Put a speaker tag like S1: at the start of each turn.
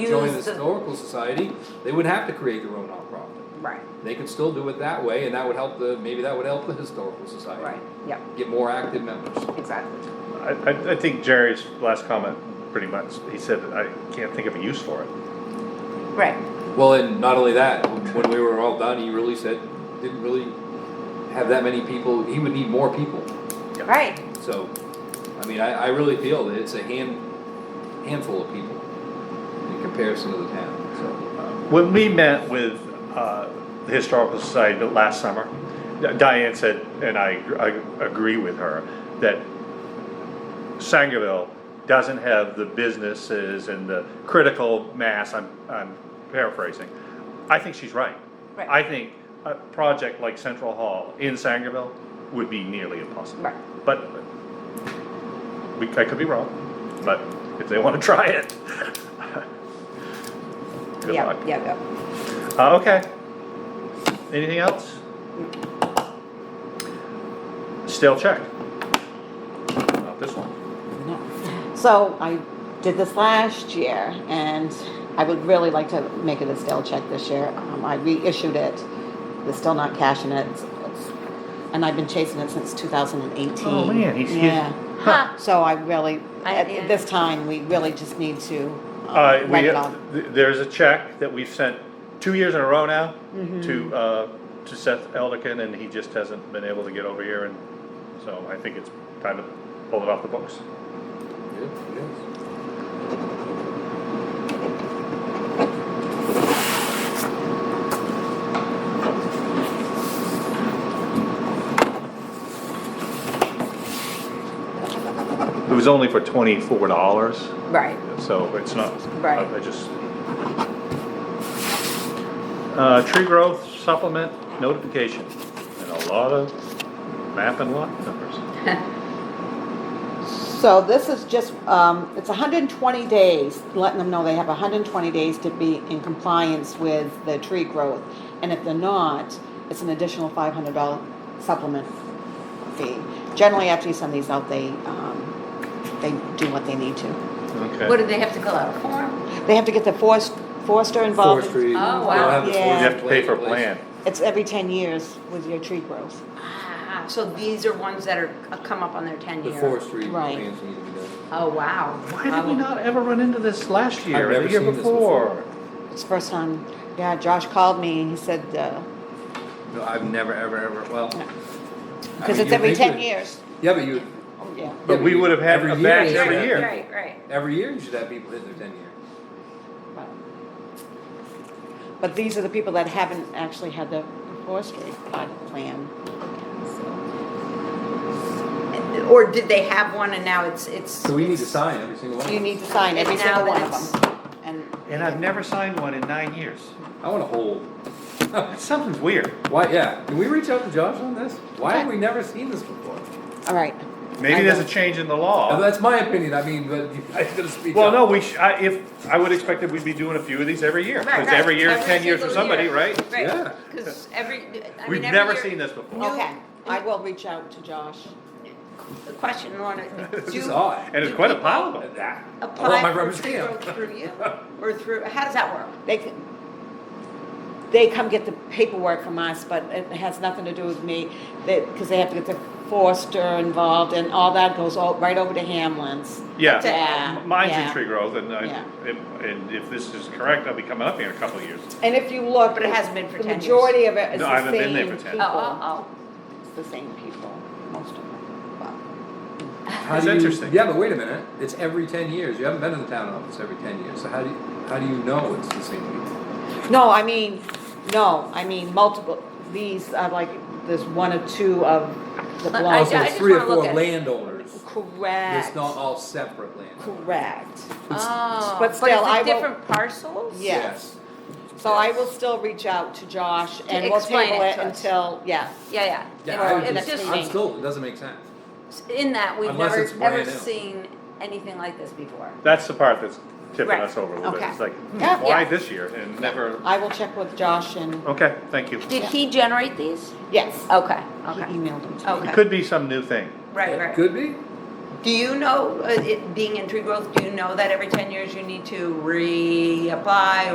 S1: join the
S2: Use the-
S1: historical society, they would have to create their own nonprofit.
S2: Right,
S1: They could still do it that way, and that would help the, maybe that would help the historical society.
S2: right, yeah,
S1: Get more active members.
S2: exactly.
S3: I, I, I think Jerry's last comment, pretty much, he said, I can't think of a use for it.
S2: Right,
S1: Well, and not only that, when we were all done, he really said, didn't really have that many people, he would need more people.
S2: right,
S1: So, I mean, I, I really feel that it's a hand, handful of people in comparison to the town, so. uh,
S3: When we met with, uh, the Historical Society the last summer, Diane said, and I, agr- I agree with her, that Sangerville doesn't have the businesses and the critical mass, I'm, I'm paraphrasing. I think she's right.
S2: Right.
S3: I think a project like Central Hall in Sangerville would be nearly impossible.
S2: Right.
S3: But, we, I could be wrong, but if they wanna try it. Good
S2: yeah,
S3: luck.
S2: yeah, yeah.
S3: Uh, okay. Anything else? Still check. Not this one.
S4: So I did this last year, and I would really like to make it a stale check this year. Um, I reissued it. They're still not cashing it. It's- it's- And I've been chasing it since 2018.
S3: Oh, man, he's- he's-
S4: Yeah.
S3: Huh.
S4: So I really,
S2: I-
S4: at
S2: yeah.
S4: this time, we really just need to um,
S3: Uh, we,
S4: write it off.
S3: th- there's a check that we've sent two years in a row now
S4: Mm-hmm.
S3: to, uh, to Seth Eldikin and he just hasn't been able to get over here and so I think it's time to pull it off the books.
S1: yeah, yes.
S3: It was only for twenty-four dollars,
S2: Right,
S3: so it's not,
S2: Right.
S3: I just. Uh, tree growth supplement notification, and a lot of map and lot numbers.
S4: So this is just, um, it's hundred and twenty days, letting them know they have hundred and twenty days to be in compliance with the tree growth. And if they're not, it's an additional five hundred dollar supplement fee. Generally, after you send these out, they, um, they do what they need to.
S2: what
S3: Okay,
S2: do they have to fill out a form?
S4: They have to get the forest, forester involved.
S1: Forestry.
S2: Oh, wow.
S1: They'll have the
S4: Yeah.
S3: you
S1: forestry
S3: have to pay for a
S1: in place.
S3: plan.
S4: It's every ten years with your tree growth.
S2: Ah, so these are ones that are, uh, come up on their ten
S1: The
S2: year?
S1: forestry
S4: Right.
S1: plans need to be done.
S2: Oh, wow.
S3: Why did we not ever run into this last year,
S1: I've
S3: or
S1: never
S3: the year
S1: seen this
S3: before?
S4: It's the first time, yeah, Josh called me and he said, uh,
S1: No, I've never, ever, ever, well. I
S4: because
S1: mean,
S4: it's
S1: you
S4: every
S1: think
S4: ten
S1: it-
S4: years.
S1: Yeah, but you,
S4: Oh, yeah.
S3: But we would've had
S1: Every
S3: a
S1: year
S3: batch
S1: you
S3: every
S1: should
S3: year.
S1: have-
S2: Right, right.
S1: Every year you should have people hit their ten year.
S4: But these are the people that haven't actually had the forestry part of the plan.
S2: Or did they have one and now it's, it's?
S1: So we need to sign every single one.
S4: You need to sign every
S2: And now
S4: single one
S2: that
S4: of them. And
S3: And I've never signed one in nine years.
S1: I want to hold.
S3: Something's weird.
S1: Why, yeah, can we reach out to Josh on this? Why have we never seen this before?
S4: All right.
S3: Maybe
S4: I
S3: there's a
S4: know.
S3: change in the
S1: Now,
S3: law.
S1: that's my opinion, I mean, but you guys gotta speak
S3: Well,
S1: up.
S3: no, we, sh- I, if, I would expect that we'd be doing a few of these every year,
S2: Right,
S3: because
S2: right.
S3: every year is ten years for
S2: single
S3: somebody,
S2: year.
S3: right?
S1: Yeah.
S2: Right, because every, I mean, every
S3: We've never
S2: year-
S3: seen this before.
S4: Okay, I will reach out to Josh.
S2: The question, Lorna,
S1: This is
S2: do
S1: odd.
S3: And it's quite a pile of them.
S1: Ah, I want my
S2: apply
S1: rubber
S2: for tree
S1: stamp.
S2: growth through you? Or through, how does that work?
S4: They, c- they come get the paperwork from us, but it has nothing to do with me, that, because they have to get the forester involved and all that goes all, right over to Hamlin's.
S3: Yeah.
S4: Yeah,
S3: M- Mine's in
S4: yeah.
S3: tree growth, and I,
S4: Yeah.
S3: if- and if this is correct, I'll be coming up here in a couple of years.
S4: And if you look.
S2: But it hasn't been for 10 years.
S4: The majority of it is
S3: No,
S4: the
S3: I haven't been there
S4: same
S3: for 10.
S4: people.
S2: Oh, oh,
S4: It's the same people, most of them. Well,
S1: How
S3: That's
S1: do you-
S3: interesting.
S1: Yeah, but wait a minute, it's every ten years, you haven't been in the town office every ten years, so how do you, how do you know it's the same people?
S4: No, I mean, no, I mean multiple, these are like, there's one or two of the
S2: But I
S4: blocks.
S1: Also,
S2: ju- I
S1: it's
S2: just
S1: three or
S2: wanna look
S1: four
S2: at it.
S1: landowners, it's
S4: Correct,
S1: not all separate landowners.
S4: correct.
S2: oh. Oh,
S4: but still, I
S2: But is it
S4: will-
S2: different parcels?
S4: Yeah. Yes. So I will still reach out to Josh and we'll
S2: explain
S4: table
S2: it
S4: it
S2: to us.
S4: until, yeah.
S2: Yeah, yeah.
S1: Yeah,
S2: It's-
S1: I would
S2: it's
S1: just,
S2: just-
S1: I'm still, it doesn't make sense.
S2: in that we've
S1: Unless
S2: never
S1: it's brand
S2: ever
S1: new.
S2: seen anything like this before.
S3: That's the part that's tipping
S2: Right.
S3: us over a little bit.
S4: Okay.
S3: It's like, hmm,
S4: Yeah.
S3: why
S2: Yeah.
S3: this year and never,
S4: I will check with Josh and,
S3: okay, thank you. It
S2: Did he generate these?
S4: yes,
S2: Okay,
S4: he
S2: okay,
S4: emailed him to me.
S2: okay.
S3: could be some new thing.
S2: Right, right.
S1: Could be,
S2: Do you know, uh, it, being in tree growth, do you know that every ten years you need to reapply